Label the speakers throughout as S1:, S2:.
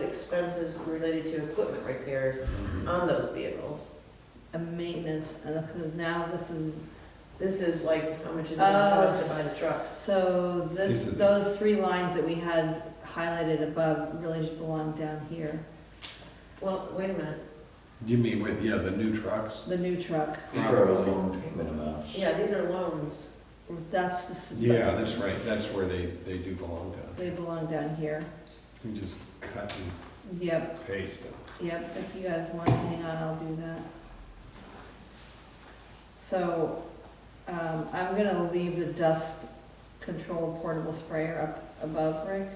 S1: expenses related to equipment repairs on those vehicles.
S2: a maintenance, and look, now this is.
S1: This is like, how much is it gonna cost to buy the truck?
S2: Oh, So this,
S3: This is-
S2: those three lines that we had highlighted above really just belong down here.
S1: Well, wait a minute,
S3: You mean with, yeah, the new trucks?
S2: The new truck,
S4: These are our loan payment amounts.
S1: yeah, these are loans.
S2: that's, just-
S3: Yeah, that's right, that's where they, they do belong to.
S2: They belong down here.
S3: You just cut and
S2: Yep,
S3: paste it.
S2: yep, if you guys want to hang on, I'll do that. So, um, I'm gonna leave the dust control portable sprayer up above, Rick.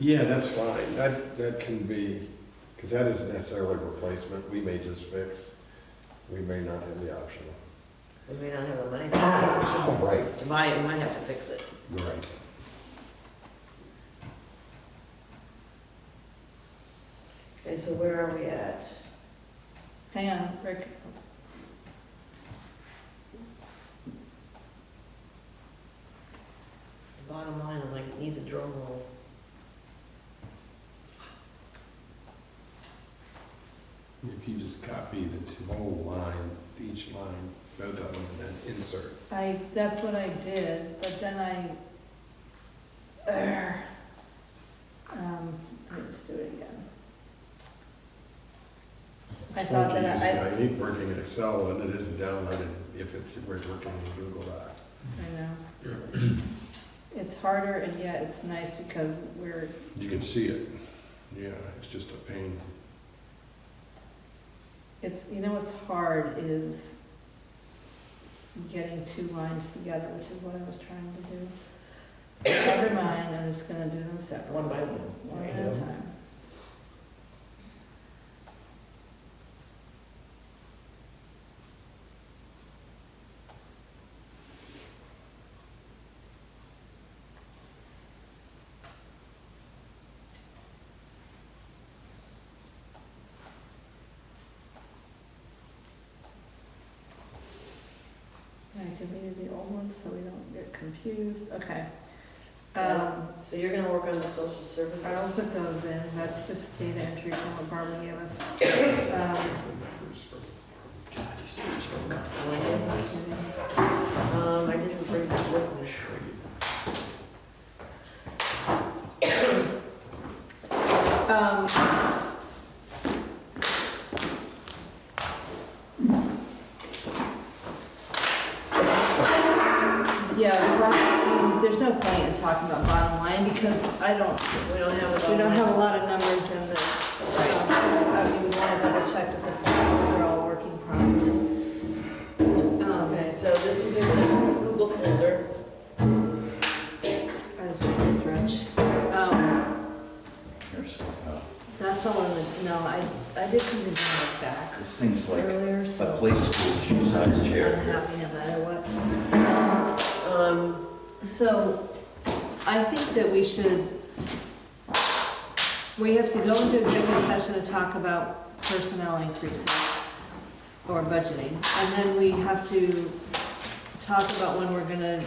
S3: Yeah, that's fine, that, that can be, because that isn't necessarily a replacement, we may just fix, we may not have the option.
S1: We may not have the money to
S4: Oh,
S3: All right.
S1: to buy it, we might have to fix it.
S3: Right.
S1: Okay, so where are we at?
S2: Hang on, Rick.
S1: Bottom line, I'm like, needs a drum roll.
S3: If you just copy the two- whole line, each line, both of them, and then insert.
S2: I, that's what I did, but then I, Err. um, let me just do it again. I thought
S3: Funky
S2: that
S3: using-
S2: I,
S3: I hate working in Excel when it is downloaded, if it's, if we're working in Google Docs.
S2: I know. It's harder and yet it's nice because we're,
S3: You can see it, yeah, it's just a pain.
S2: it's, you know what's hard is getting two lines together, which is what I was trying to do. Never mind, I'm just gonna do them separate.
S1: One by one.
S2: One at a time. I deleted the old one so we don't get confused, okay. Um,
S1: So you're gonna work on the social services?
S2: I'll put those in, that's just data entry from what Barbara gave us. Um,
S3: The numbers for-
S1: Um, I didn't bring this with me.
S2: um, Yeah, well, there's no point in talking about bottom line because I don't,
S1: We don't have it all.
S2: we don't have a lot of numbers in the, um, I mean, we want to double check that the formulas are all working properly. Um,
S1: Okay, so this is in the Google folder.
S2: I just want to stretch. Um,
S4: Here's, uh,
S2: That's all in the, no, I, I did something in the back
S4: This thing's like a
S2: earlier, so.
S4: play school shoe-sized chair
S2: I'm
S4: here.
S2: happy no matter what.
S1: Um,
S2: So I think that we should, we have to go into executive session to talk about personnel increases or budgeting. And then we have to talk about when we're gonna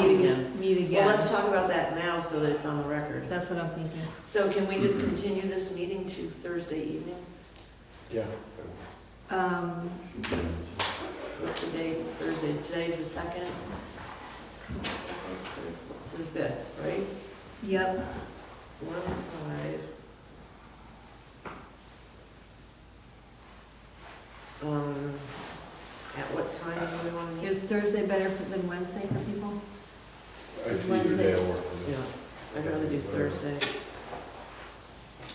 S1: meet again.
S2: meet
S1: Well, let's
S2: again.
S1: talk about that now so that it's on the record.
S2: That's what I'm thinking.
S1: So can we
S4: Mm-hmm.
S1: just continue this meeting to Thursday evening?
S3: Yeah.
S2: Um,
S1: What's the date, Thursday? Today's the second? It's the fifth, right?
S2: yep,
S1: One, five. Um, at what time do we want to meet?
S2: is Thursday better for- than Wednesday for people?
S3: It's either day or.
S1: Yeah, I'd rather do Thursday.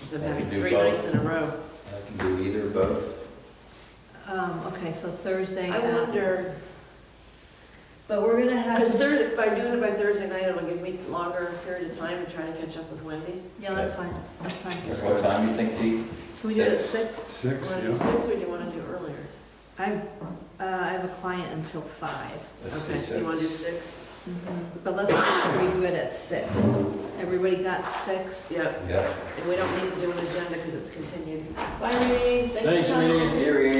S1: Instead of
S4: I
S1: having
S4: can do
S1: three
S4: both.
S1: nights in a row.
S4: I can do either, both.
S2: Um, okay, so Thursday.
S1: I
S2: at-
S1: wonder,
S2: But we're gonna have.
S1: because Thursday, by doing it by Thursday night, it'll give me longer period of time to try to catch up with Wendy.
S2: Yeah, that's fine, that's fine.
S4: Here's what time you think, Dee?
S2: Can we do it at six?
S3: Six,
S1: Want to do
S3: yeah.
S1: six or do you want to do earlier?
S2: I, uh, I have a client until five.
S4: Let's do
S1: Okay, so you want to do six?
S4: six.
S1: Mm-hmm.
S2: But let's make sure we do it at six. Everybody got six?
S1: Yep,
S4: Yeah.
S1: and we don't need to do an agenda because it's continued. Bye, Renee.
S3: Thanks,
S1: for coming.
S3: Renee.
S4: Siri.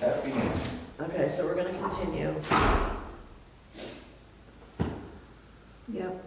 S4: Happy New Year.
S1: Okay, so we're gonna continue.
S2: Yep.